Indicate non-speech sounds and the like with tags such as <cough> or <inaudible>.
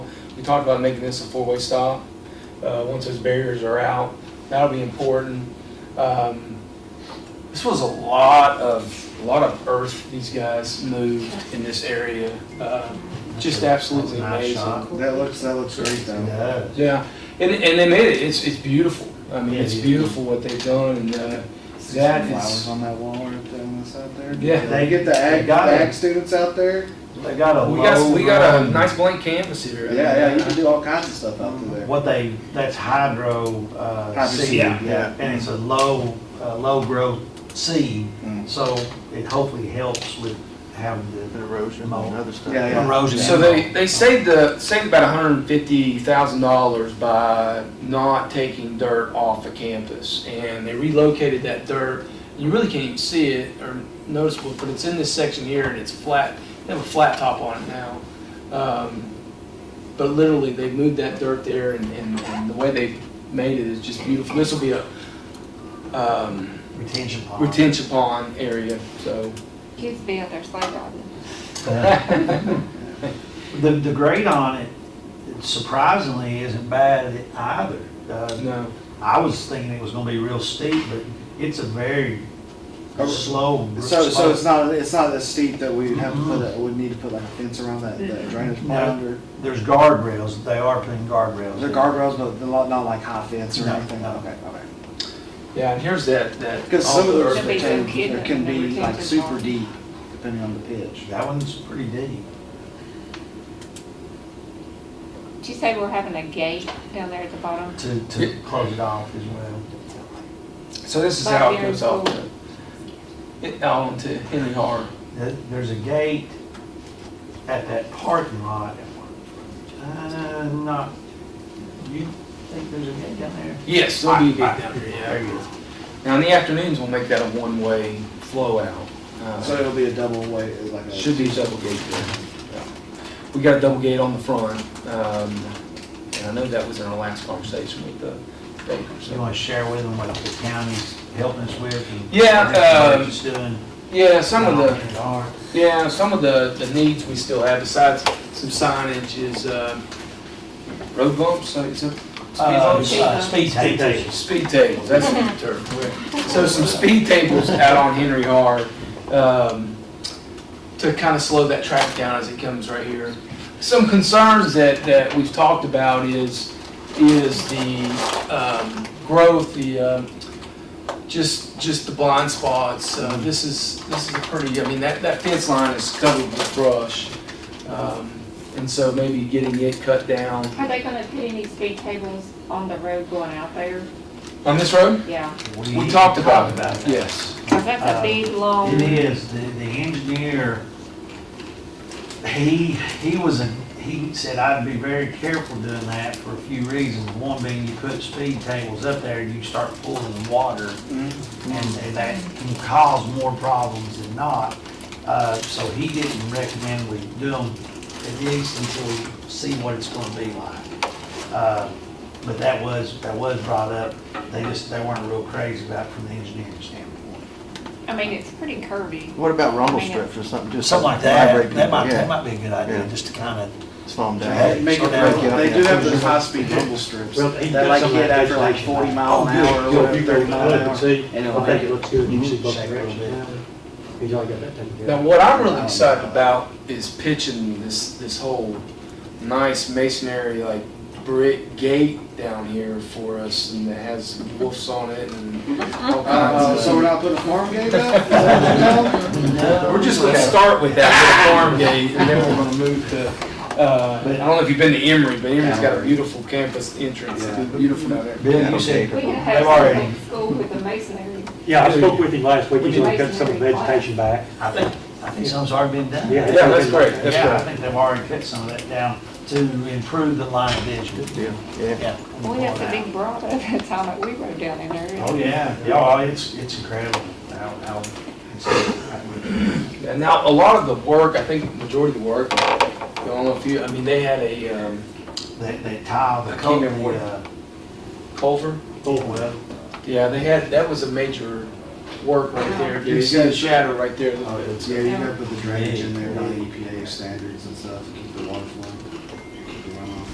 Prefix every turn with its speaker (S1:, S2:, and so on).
S1: We talked about making this a four-way stop, uh, once those barriers are out, that'll be important. Um, This was a lot of, a lot of earth these guys moved in this area, Um, just absolutely
S2: That's a nice shot.
S1: amazing.
S3: That looks, that looks great though.
S2: does.
S1: Yeah, and, and they made it, it's, it's beautiful, I mean,
S2: Yeah,
S1: it's
S2: yeah.
S1: beautiful what they've done, and, uh,
S3: See
S1: That
S3: some
S1: is-
S3: Flowers on that wall right there on the side there.
S1: Yeah.
S3: They get the
S2: They
S3: ag, the
S2: got it.
S3: ag students out there.
S2: They got a
S1: we
S2: low
S1: got, we got a
S2: run.
S1: nice blank canvas here.
S3: Yeah, yeah, you can do all kinds of stuff out there.
S2: What they, that's hydro, uh,
S3: Hydro
S2: seed.
S3: seed, yeah.
S2: And it's a low, uh, low growth seed,
S3: Mm.
S2: so it hopefally helps with having the
S4: Erosion and other stuff.
S3: Oh. Yeah, yeah.
S2: erosion.
S1: So they, they saved the, saved about hundred and fifty thousand dollars by not taking dirt off the campus. And they relocated that dirt, you really can't even see it or noticeable, but it's in this section here and it's flat, they have a flat top on it now. Um, But literally, they moved that dirt there and, and, and the way they made it is just beautiful. This will be a, um,
S2: Retention pond. <laughs>
S1: retention pond area, so. <laughs>
S5: Kids be out there slide riding.
S2: The, the grade on it surprisingly isn't bad either. Uh,
S1: No,
S2: I was thinking it was gonna be real steep, but it's a very
S3: Oh,
S2: slow.
S3: So, so
S2: slope.
S3: it's not, it's not as steep that we'd have to put, a- we'd need to put like a fence around that, that drainage pond or,
S2: There's guardrails, they are putting guardrails.
S3: they're
S2: in.
S3: guardrails, but they're not, not like high fence or
S2: No,
S3: anything.
S2: no.
S3: Okay, okay.
S1: yeah, and here's that, that.
S3: Cause some of
S1: all the
S3: those,
S1: earth-
S5: Should be some
S3: they
S5: kid
S3: can, can
S5: in the
S3: be like
S5: retention
S3: super
S5: pond.
S3: deep depending on the pitch.
S2: That one's pretty deep.
S5: Did you say we're having a gate down there at the bottom?
S2: to, to close it off as well.
S1: So this is how it goes off. It, out onto Henry Har.
S2: There- There's a gate at that parking lot. Uh, not, you think there's a gate down there?
S1: Yes, there'll be a gate
S2: I- I-
S1: down
S2: There
S1: here, yeah.
S2: you go.
S1: Now, in the afternoons, we'll make that a one-way flow out. Uh,
S3: So it'll be a double way, like a.
S1: Should be a double gate there. We got a double gate on the front, um, and I know that was in our last conversation with the baker,
S2: You
S1: so.
S2: wanna share with them what the county's helping us with? and
S1: Yeah,
S2: what they're
S1: um,
S2: just doing?
S1: Yeah, some of the,
S2: Are.
S1: Yeah, some of the, the needs we still have besides some signage is, um, road bumps, so it's a.
S2: Uh,
S1: Um,
S5: Speed
S2: uh,
S5: bumps.
S2: Speed tables.
S1: Speed tables, that's the new term. So some speed tables out on Henry R, um, to kind of slow that traffic down as it comes right here. Some concerns that, that we've talked about is, is the, um, growth, the, um, just, just the blind spots. Uh, this is, this is a pretty, I mean, that, that fence line is covered with brush. Um, and so maybe getting it cut down
S5: Are they gonna put any speed tables on the road going out there?
S1: on this road?
S5: Yeah,
S1: We talked about
S2: that.
S1: it, yes.
S5: cause that's
S2: Uh,
S5: a big, long.
S2: It is, the, the engineer, he, he was a, he said I'd be very careful doing that for a few reasons. One being you put speed tables up there, you start pulling water
S3: Mhm.
S2: and and that can cause more problems than not. Uh, so he didn't recommend we do them at least until we see what it's gonna be like. Uh, But that was, that was brought up, they just, they weren't real crazy about it from the engineering standpoint.
S5: I mean, it's pretty curvy.
S4: What about rumble
S5: I mean,
S4: strips or something? Just
S2: Something like
S4: vibrate
S2: that, that
S4: people,
S2: might, that
S4: yeah.
S2: might be a good idea,
S4: Yeah.
S2: just to kind of.
S4: Slow them
S2: Yeah.
S4: down.
S3: Make it,
S4: Yeah.
S3: they do have those high-speed rumble strips
S2: Well, he
S3: that
S2: did
S3: like
S2: something
S3: hit
S2: like
S3: after
S2: this
S3: like
S2: last
S3: forty
S2: night.
S3: mile an hour or whatever, thirty mile an hour. And it'll make it,
S6: looks good,
S2: You should both directions.
S6: He's already got that taken care
S1: Now,
S6: of.
S1: what I'm really excited about is pitching this, this whole nice masonry, like brick gate down here for us and that has wolves on it and all
S3: uh,
S1: kinds
S3: so we're
S1: of.
S3: not putting a farm gate up? Is that what you're telling?
S1: We're just gonna start with that little farm gate and then we're gonna move to, uh, I don't know if you've been to Emory, but Emory's got a beautiful campus entrance. It's beautiful out there.
S2: Bill, you said,
S5: We could
S2: They've
S5: have
S2: already-
S5: something at school with a masonry.
S6: Yeah, I spoke with him last week, he's gonna cut some of the vegetation back.
S2: I think, I think some's already been done.
S6: Yeah.
S1: Yeah, that's great, that's
S2: Yeah, I
S1: great.
S2: think they've already cut some of that down to improve the line of vision.
S4: Yeah, yeah.
S2: Yeah.
S5: We had the big <laughs> broad at that time that we rode down in there.
S2: Oh, yeah, yeah, it's, it's incredible how, how.
S1: And now, a lot of the work, I think majority of the work, I don't know if you, I mean, they had a, um,
S2: They, they tile the
S1: I can't remember
S2: coat,
S1: what-
S2: uh,
S1: culvert.
S2: oh, well,
S1: Yeah, they had, that was a major work right there.
S3: Yeah,
S1: You
S3: you
S1: see the
S3: got-
S1: shadow
S3: Oh,
S1: right there a little bit.
S3: E Yeah, you gotta put the drainage in there, by the EPA standards and stuff, to keep the water flowing.